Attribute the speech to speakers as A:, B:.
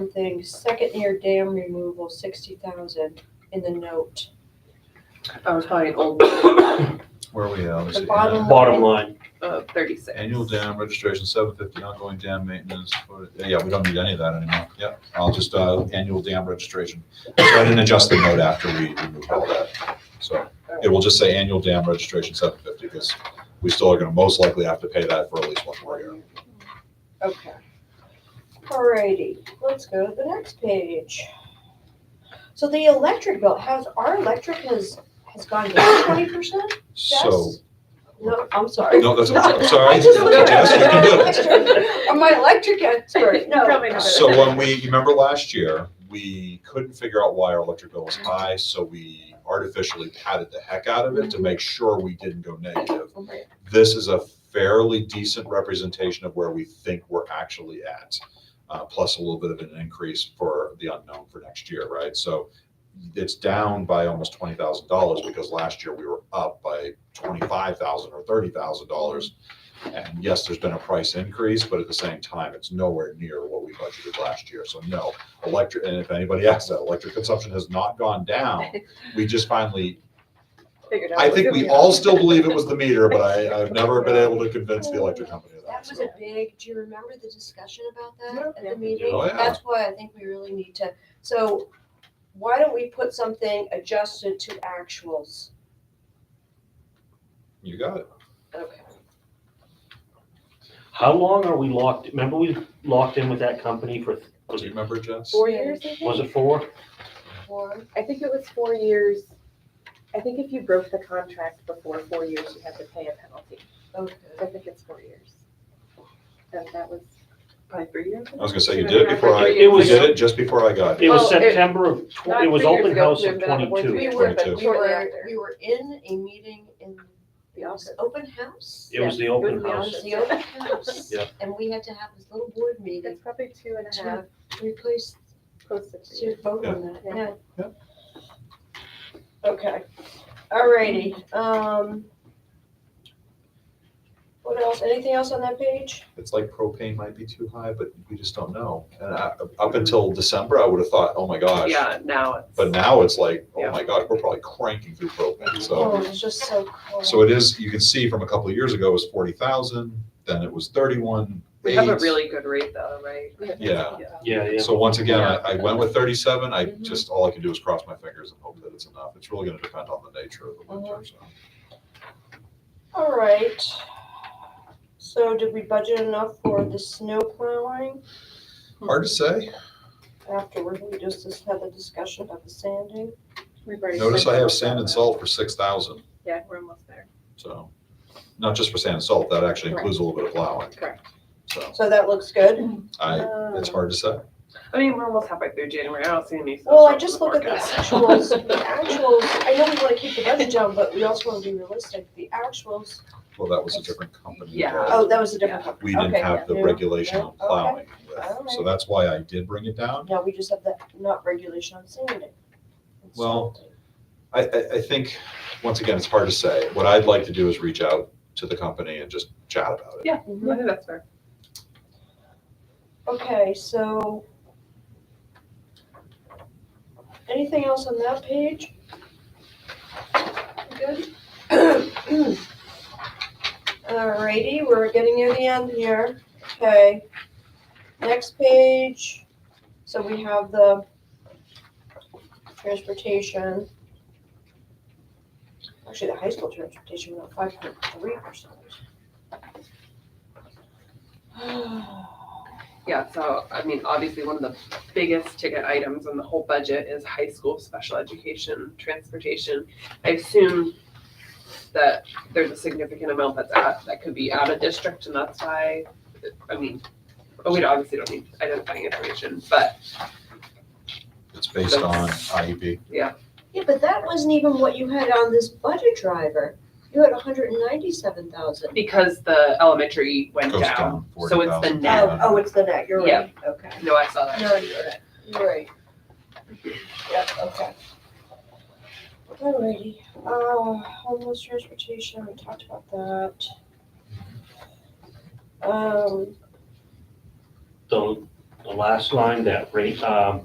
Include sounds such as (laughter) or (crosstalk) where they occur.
A: thing, second year dam removal, sixty thousand in the note.
B: I was probably old,
C: Where are we at?
A: The
C: Let's see.
A: bottom-
D: Bottom line,
B: uh, thirty-six.
C: Annual dam registration, seven fifty, ongoing dam maintenance, for- yeah, we don't need any of that anymore, yeah, I'll just, uh, annual dam registration. So I didn't adjust the note after we removed all that, so it will just say annual dam registration, seven fifty, because we still are gonna most likely have to pay that for at least one more year.
A: Okay. Alrighty, let's go to the next page. So the electric bill, has, our electric has, has gone down twenty percent?
C: So,
A: No, I'm sorry.
C: no, that's, I'm
A: (laughs)
C: sorry,
A: I just looked at
C: Jess, you can do it.
A: it. (laughs) I'm my electric
B: (laughs)
A: expert, no.
B: Probably not.
C: So uh, when we, you remember last year, we couldn't figure out why our electric bill was high, so we artificially padded the heck out of it to make sure we didn't go negative. This is a fairly decent representation of where we think we're actually at, uh, plus a little bit of an increase for the unknown for next year, right? So it's down by almost twenty thousand dollars because last year we were up by twenty-five thousand or thirty thousand dollars and yes, there's been a price increase, but at the same time, it's nowhere near what we budgeted last year. So no, electric, and if anybody asks that, electric consumption has not gone down. We just finally,
B: Figured out
C: I
B: what
C: think we
B: we
C: all
B: are.
C: still believe it was the meter, but I, I've never been able to convince the electric company of that.
A: That was
C: So
A: a big, do you remember the discussion about
B: Yeah.
A: that at the meeting?
C: Oh, yeah.
A: That's why I think we really need to, so why don't we put something adjusted to actuals?
C: You got it.
A: Okay.
D: how long are we locked, remember we locked in with that company for, was
C: Do you
D: it,
C: remember, Jess?
E: Four years, I
D: was
E: think.
D: it four?
A: Or,
E: I think it was four years. I think if you broke the contract before four years, you had to pay a penalty.
A: okay.
E: I think it's four years. And that was,
B: Probably three years.
C: I was gonna say, you did it before I,
D: It
C: you
D: was-
C: did it just before I got
D: It
C: here.
D: was
B: Well, it-
D: September of, tw-
B: not
D: it was
B: three years
D: open
B: ago,
D: house
B: we've
D: of
B: been on the board
A: We
D: twenty-two.
B: three
A: were,
C: Twenty-two.
A: we
B: Shortly
A: were,
B: after.
A: we were in a meeting in
B: The office.
A: open house.
D: It was the open
B: the
A: It
D: house.
A: was the open
C: (laughs)
A: house.
D: Yeah.
A: And we had to have this little board meeting
E: it's probably two and
A: to
E: a half
A: replace,
E: close to three.
A: to vote on that,
E: Yeah.
A: yeah.
C: Yeah.
A: Okay, alrighty, um. What else, anything else on that page?
C: It's like propane might be too high, but we just don't know. And I, up until December, I would have thought, oh my gosh.
B: Yeah, now
C: But now it's like,
B: Yeah.
C: oh my gosh, we're probably cranking through propane, so.
A: Oh, it's just so cold.
C: So it is, you can see from a couple of years ago, it was forty thousand, then it was thirty-one.
B: we have a
C: eight.
B: really good rate though, right?
C: Yeah.
D: Yeah, yeah.
C: So once again, I,
B: Yeah.
C: I went with thirty-seven, I
B: Mhm.
C: just, all I can do is cross my fingers and hope that it's enough. It's really gonna depend on the nature of the winter, so.
A: Alright. So did we budget enough for the snow plowing?
C: Hard to say.
A: afterward, we just just had a discussion about the sanding.
E: We've already
C: Notice
E: spent
C: I have
E: almost
C: sand
E: all
C: and
E: that.
C: salt for six thousand,
E: Yeah, we're almost there.
C: so, not just for sand and salt, that actually includes a little bit of plowing,
E: Correct.
C: so.
A: So that looks good.
C: I, it's hard to say.
B: I mean, we're almost halfway through January. I don't see any.
A: Well, I
B: snow
A: just
B: from
A: look at the
B: forecast. (laughs)
A: actuals, the actuals, I know we wanna keep the budget down, but we also wanna be realistic, the actuals,
C: Well, that was a different company.
B: Yeah.
C: involved.
A: oh, that was a different company.
C: We didn't
A: Okay,
C: have the
A: yeah.
C: regulation on
A: Yeah, okay.
C: plowing, with, so
A: Alright.
C: that's why I did bring it down.
A: Now, we just have the not regulation on sanding.
C: Well, I, I, I think, once again, it's hard to say. What I'd like to do is reach out to the company and just chat about it.
B: Yeah. I think that's fair.
A: Okay, so. Anything else on that page? Good? (clears throat) Alrighty, we're getting near the end here. Okay. Next page. So we have the transportation. Actually, the high school transportation went up five point three (sighs) percent.
B: Yeah, so I mean, obviously, one of the biggest ticket items in the whole budget is high school special education transportation. I assume that there's a significant amount that's out that could be out of district, and that's why, I mean, but we obviously don't need identifying information, but
C: It's based on E IEP.
A: Yeah, but that wasn't even what you had on this budget driver. You had hundred and ninety-seven thousand.
B: because the elementary went
C: Goes
B: down,
C: down
B: so it's the
C: 40,000.
B: net.
C: Yeah.
A: Oh, oh, it's the net, you're right, okay.
B: No, I saw that.
A: No, you're right, you're right. Yep, okay. Alrighty, uh, homeless transportation, we talked about that. Um,
D: So the last line, that rate, um,